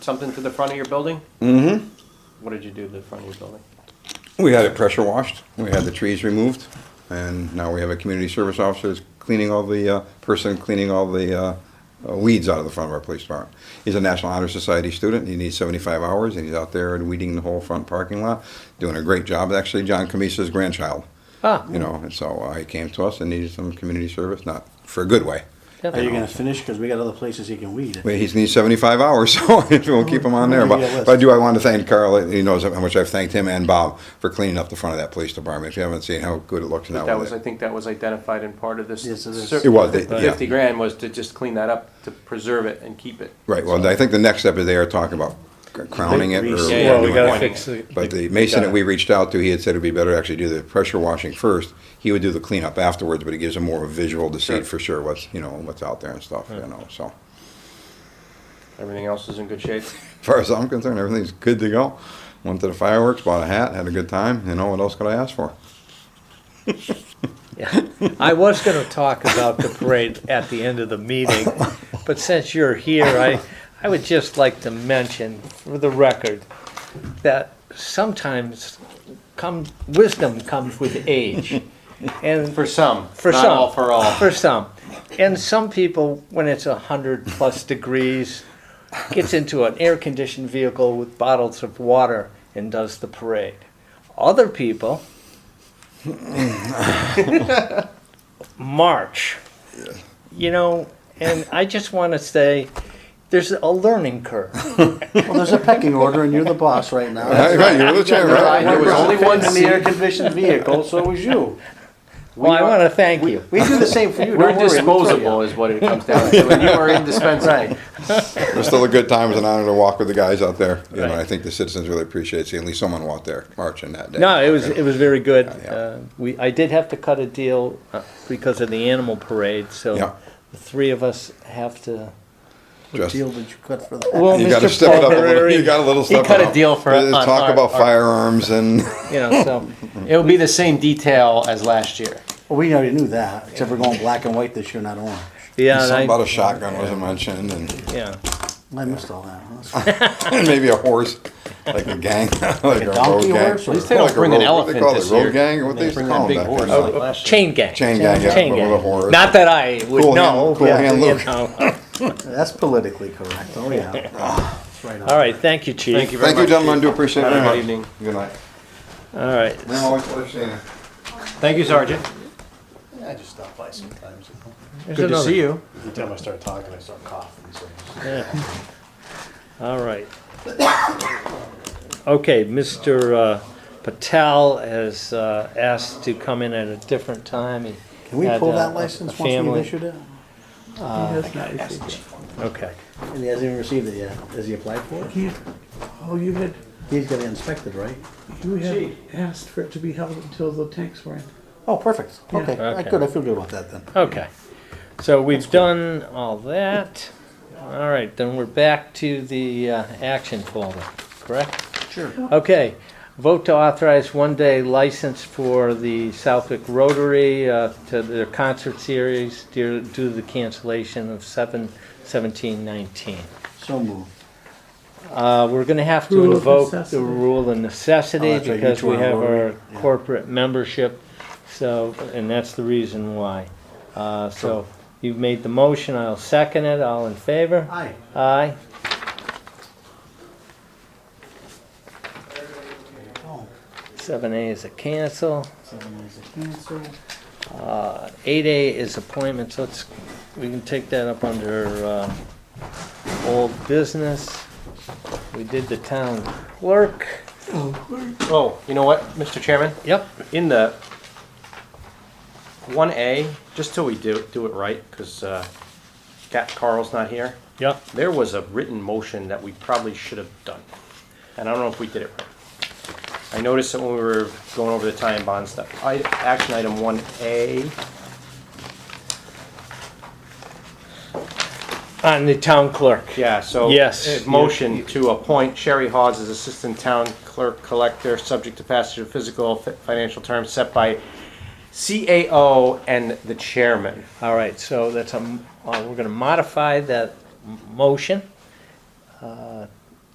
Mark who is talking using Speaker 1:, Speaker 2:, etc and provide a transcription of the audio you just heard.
Speaker 1: something to the front of your building? Mm-hmm. What did you do to the front of your building?
Speaker 2: We had it pressure washed, we had the trees removed, and now we have a community service officer that's cleaning all the, uh, person cleaning all the uh, uh, weeds out of the front of our police department. He's a National Honor Society student, he needs 75 hours, and he's out there and weeding the whole front parking lot, doing a great job, actually, John Camisa's grandchild.
Speaker 1: Ah.
Speaker 2: You know, and so uh, he came to us and needed some community service, not for a good way.
Speaker 3: Are you gonna finish? Because we got other places you can weed.
Speaker 2: Well, he's needs 75 hours, so we'll keep him on there. But, but I do, I want to thank Carl, he knows how much I've thanked him and Bob for cleaning up the front of that police department. If you haven't seen how good it looks now
Speaker 1: That
Speaker 2: with
Speaker 1: was, I
Speaker 2: it.
Speaker 1: think that was identified in part of this.
Speaker 3: Yes, it is.
Speaker 1: cer-
Speaker 2: It was,
Speaker 1: the
Speaker 2: it- yeah.
Speaker 1: Fifty grand was to just clean that up, to preserve it and keep it.
Speaker 2: Right, well, I think the next step is they are talking about crowning it or.
Speaker 3: Yeah,
Speaker 1: yeah,
Speaker 4: Well, we
Speaker 1: you
Speaker 4: gotta
Speaker 1: were
Speaker 4: fix it.
Speaker 2: But the mason that we reached out to, he had said it'd be better to actually do the pressure washing first. He would do the cleanup afterwards, but it gives him more of a visual to see
Speaker 1: Sure.
Speaker 2: for sure what's, you know, what's out there and stuff, you know, so.
Speaker 1: Everything else is in good shape.
Speaker 2: As far as I'm concerned, everything's good to go. Went to the fireworks, bought a hat, had a good time, you know, what else could I ask for?
Speaker 4: Yeah. I was gonna talk about the parade at the end of the meeting, but since you're here, I, I would just like to mention for the record that sometimes come, wisdom comes with age. And
Speaker 1: For some,
Speaker 4: For
Speaker 1: not
Speaker 4: some.
Speaker 1: all for all.
Speaker 4: For some. And some people, when it's 100 plus degrees, gets into an air conditioned vehicle with bottles of water and does the parade. Other people march. You know, and I just want to say there's a learning curve.
Speaker 3: Well, there's a pecking order, and you're the boss right now.
Speaker 2: Right, right, you're the chair, right?
Speaker 1: There was only one
Speaker 3: in the
Speaker 1: seat.
Speaker 3: air-conditioned vehicle, so was you.
Speaker 4: Well, I
Speaker 1: are-
Speaker 4: want to thank you.
Speaker 3: We do the same for you.
Speaker 1: We're
Speaker 3: don't worry, I'm with you.
Speaker 1: disposable is what it comes down to, and you are indispensable.
Speaker 3: Right.
Speaker 2: It was still a good time. It was an honor to walk with the guys out there. You know,
Speaker 4: Right.
Speaker 2: I think the citizens really appreciate seeing at least someone out there marching that day.
Speaker 4: No, it was it was very good.
Speaker 2: Yeah.
Speaker 4: Uh, we I did have to cut a deal uh, because of the animal parade, so
Speaker 2: Yeah.
Speaker 4: the three of us have to.
Speaker 3: What
Speaker 2: Just-
Speaker 3: deal did you cut for that?
Speaker 4: Well,
Speaker 2: You got to step it up. A little, you got a little
Speaker 4: Oh, he
Speaker 2: step
Speaker 4: cut
Speaker 2: it
Speaker 4: a
Speaker 2: up.
Speaker 4: deal for-
Speaker 2: Uh,
Speaker 4: on
Speaker 2: talk
Speaker 4: our-
Speaker 2: about
Speaker 4: our-
Speaker 2: firearms and
Speaker 4: you know, so
Speaker 1: It will be the same detail as last year.
Speaker 3: Well, we already knew that, except we're going black and white this year, not orange.
Speaker 4: yeah, and I-
Speaker 2: something about a shotgun wasn't mentioned, and,
Speaker 4: yeah.
Speaker 3: I missed all that. That's fine.
Speaker 2: and maybe a horse, like a gang, like, a, road
Speaker 3: donkey
Speaker 2: gang.
Speaker 3: horse or- At least
Speaker 1: they don't
Speaker 2: Like a
Speaker 1: bring an
Speaker 2: road- what
Speaker 1: elephant
Speaker 2: They call
Speaker 1: this
Speaker 2: it road
Speaker 1: year.
Speaker 2: gang. What
Speaker 1: They
Speaker 2: they
Speaker 1: bring that
Speaker 2: call them
Speaker 1: big
Speaker 2: back
Speaker 1: horse.
Speaker 2: then?
Speaker 1: Oh, last year.
Speaker 4: Chain gang.
Speaker 2: Chain gang, yeah,
Speaker 4: Chain
Speaker 2: but with a horse.
Speaker 4: Not that I would
Speaker 2: Cool hand-
Speaker 4: know.
Speaker 2: cool
Speaker 4: but,
Speaker 2: hand
Speaker 4: you
Speaker 2: Luke.
Speaker 4: know.
Speaker 3: That's politically correct. Oh, yeah. That's right on.
Speaker 4: All right, thank you, chief.
Speaker 1: Thank you very
Speaker 2: Thank you,
Speaker 1: much.
Speaker 2: gentlemen. Do appreciate it
Speaker 1: Have a
Speaker 2: very much.
Speaker 1: good evening.
Speaker 2: Good night.
Speaker 4: All right.
Speaker 2: Man, always pleasure seeing you.
Speaker 1: Thank you, Sergeant.
Speaker 3: I just stop by sometimes.
Speaker 4: There's
Speaker 1: Good to
Speaker 4: another-
Speaker 1: see you.
Speaker 3: Every time I start talking, I start coughing. so-
Speaker 4: Yeah. All right. Okay, Mr. uh, Patel has uh, asked to come in at a different time. He
Speaker 3: Can we
Speaker 4: had,
Speaker 3: pull
Speaker 4: uh,
Speaker 3: that
Speaker 4: a
Speaker 3: license once
Speaker 4: family-
Speaker 3: we've issued it?
Speaker 4: Okay.
Speaker 3: And he hasn't even received it yet. Has he applied for it?
Speaker 5: You- Oh, you had,
Speaker 3: He's got it inspected, right?
Speaker 5: you had asked for it to be held until the tanks were in.
Speaker 3: Oh, perfect. Okay,
Speaker 4: Okay.
Speaker 3: good. I feel good about that then.
Speaker 4: Okay, so we've done all that. All right, then we're back to the uh, action folder, correct?
Speaker 3: Sure.
Speaker 4: Okay, vote to authorize one-day license for the Southwick Rotary uh, to their concert series due due to the cancellation of 7/17/19.
Speaker 3: So moved.
Speaker 4: Uh, We're going to have to
Speaker 5: Rule of
Speaker 4: invoke the
Speaker 5: necessity.
Speaker 4: rule of
Speaker 3: Oh,
Speaker 4: necessity
Speaker 3: that's right, you
Speaker 4: because
Speaker 3: two
Speaker 4: we
Speaker 3: are
Speaker 4: have our
Speaker 3: Rotary, yeah.
Speaker 4: corporate membership, so, and that's the reason why. Uh, So you've made the motion, I'll second it, all in favor?
Speaker 3: Aye.
Speaker 4: Aye.
Speaker 3: Oh,
Speaker 4: Seven A is a cancel.
Speaker 3: seven is a cancel.
Speaker 4: Eight A is appointments, let's, we can take that up under uh, old business. We did the town clerk.
Speaker 1: Oh, you know what, Mr. Chairman?
Speaker 4: Yep,
Speaker 1: In the one A, just till we do, do it right, because Carl's not here,
Speaker 4: yep.
Speaker 1: there was a written motion that we probably should have done. And I don't know if we did it right. I noticed that when we were going over the tie and bond stuff, I, action item one A,
Speaker 3: Uh,
Speaker 4: On the town clerk.
Speaker 1: yeah, so.
Speaker 4: Yes.
Speaker 1: eh, Motion to appoint Sherry Hawes as Assistant Town Clerk Collector, subject to passage of physical, fi- financial terms set by CAO and the Chairman.
Speaker 4: All right, so that's a, m- uh, we're going to modify that m- motion uh,